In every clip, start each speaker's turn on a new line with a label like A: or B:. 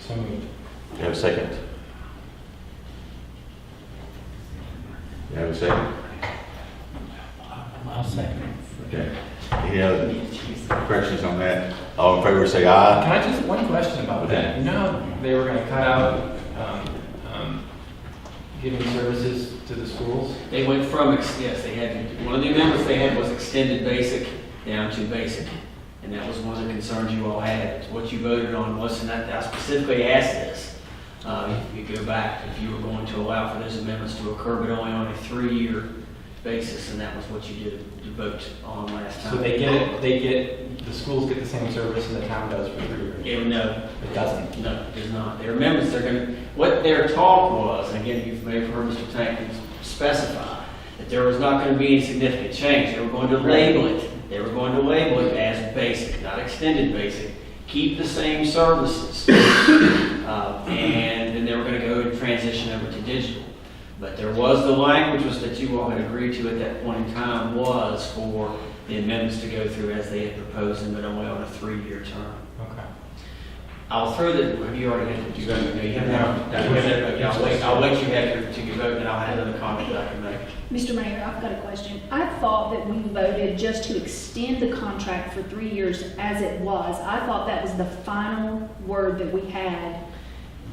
A: So moved.
B: Do I have a second? Do I have a second?
A: I'll second.
B: Okay. Any other corrections on that? All in favor, say aye.
C: Uh, Can I just, one question about that?
B: Okay.
C: You know, how they were gonna cut out, um, um, giving services to the schools?
D: They went from, ex- yes, they had, one of the amendments they had was extended basic down to basic. And that was one of the concerns you all had, what you voted on was, and I I specifically asked this. Uh, if you go back, if you were going to allow for those amendments to occur, but only on a three-year basis, and that was what you did, you vote on last time.
C: So they get, it. they get, the schools get the same service and the town does for three years?
D: Yeah, no,
C: It doesn't.
D: No, it does not. Their amendments, they're going, to what their talk was, and again, you may have heard Mr. Tankin specify, that there was not going to be any significant change. They were going to label it, they were going to label it as basic, not extended basic, keep the same services. Uh, And then they were going to go and transition over to digital. But there was, the language was that you all had agreed to at that point in time was for the amendments to go through as they had proposed them, but only on a three-year term.
C: Okay.
D: I'll throw the, have you already had, did you go, no, you haven't,
C: No.
D: no, you haven't, okay, I'll wait, I'll let you have your, to your vote, and I'll have another comment that I can make.
E: Mr. Mayor, I've got a question. I thought that we voted just to extend the contract for three years as it was. I thought that was the final word that we had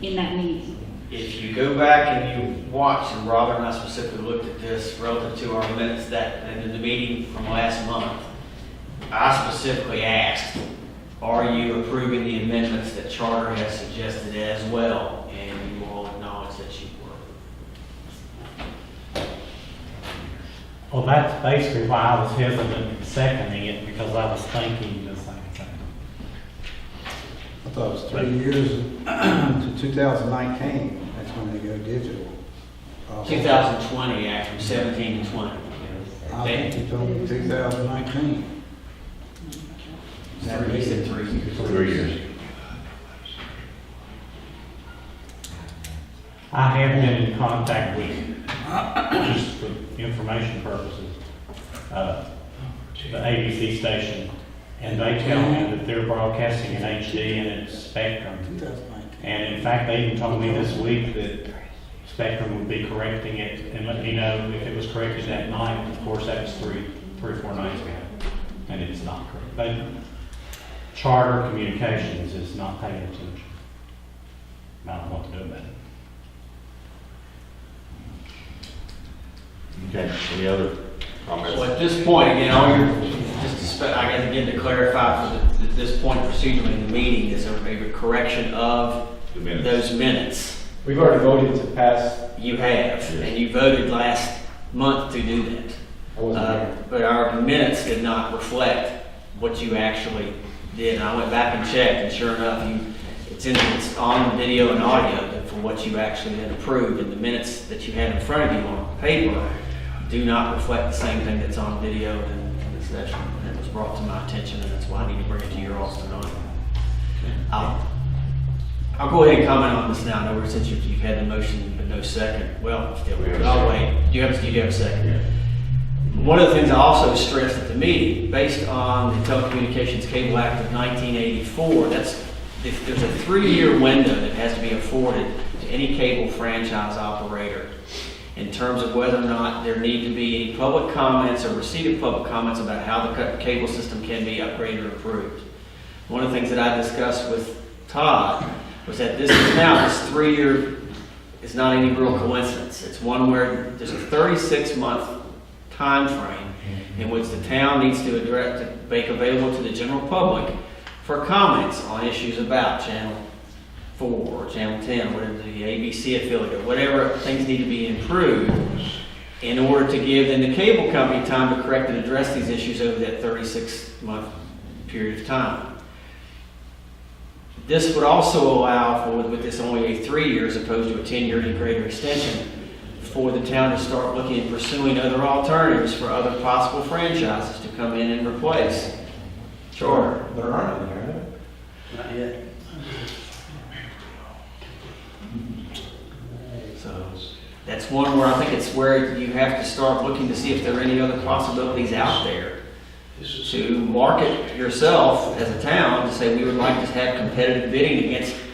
E: in that meeting.
D: If you go back and you watch, and Robert and I specifically looked at this relative to our minutes that, and in the meeting from last month, I specifically asked, are you approving the amendments that Charter has suggested as well? And you all acknowledged that you were.
A: Well, that's basically why I was hesitant in seconding it, because I was thinking the same thing.
F: I thought it was three years to 2019, that's when they go digital. Uh,
D: 2020, Act from 17 to 20.
F: I think you told me 2019.
D: Three, he said three years.
B: Three years.
A: I have been in contact with, just for information purposes, uh, the ABC station, and they tell me that they're broadcasting in HD and it's Spectrum.
F: 2019.
A: And in fact, they even told me this week that Spectrum would be correcting it and let me know if it was corrected that night. Of course, that was three, three or four nights ago, and it's not correct. But Charter Communications is not paying attention. I don't know what to do about it.
B: Okay, any other comments?
D: Well, at this point, again, all your, just to, spe- I guess, again, to clarify, for the- at this point procedurally in the meeting, is there a correction of
B: The minutes.
D: those minutes?
C: We've already voted to pass.
D: You have, and you voted last month to do that.
C: I wasn't
D: Uh,
C: here.
D: But our minutes did not reflect what you actually did. And I went back and checked, and sure enough, you, it's in, it's on video and audio for what you actually had approved, and the minutes that you had in front of you on paper do not reflect the same thing that's on video and in the session. And it was brought to my attention, and that's why I need to bring it to your office tonight. I'll, I'll go ahead and comment on this now, I know we're- since you've, you've had the motion, but no second. Well, still,
B: We have a
D: I'll
B: second.
D: wait. You have, you do have a second.
B: Yeah.
D: One of the things I also stressed at the meeting, based on the Telecommunications Cable Act of 1984, that's, if there's a three-year window that has to be afforded to any cable franchise operator in terms of whether or not there need to be any public comments or receipt of public comments about how the ca- cable system can be upgraded or improved. One of the things that I discussed with Todd was that this is now, this three-year is not any real coincidence. It's one where there's a 36-month time frame in which the town needs to address, to make available to the general public for comments on issues about Channel 4 or Channel 10, whatever the ABC affiliate, or whatever things need to be improved in order to give then the cable company time to correct and address these issues over that 36-month period of time. This would also allow for, with this only a three year as opposed to a 10-year any greater extension, for the town to start looking and pursuing other alternatives for other possible franchises to come in and replace. Charter.
C: There aren't any, are there?
D: Not yet. So, that's one where I think it's where you have to start looking to see if there are any other possibilities out there to market yourself as a town, to say, we would like to have competitive bidding against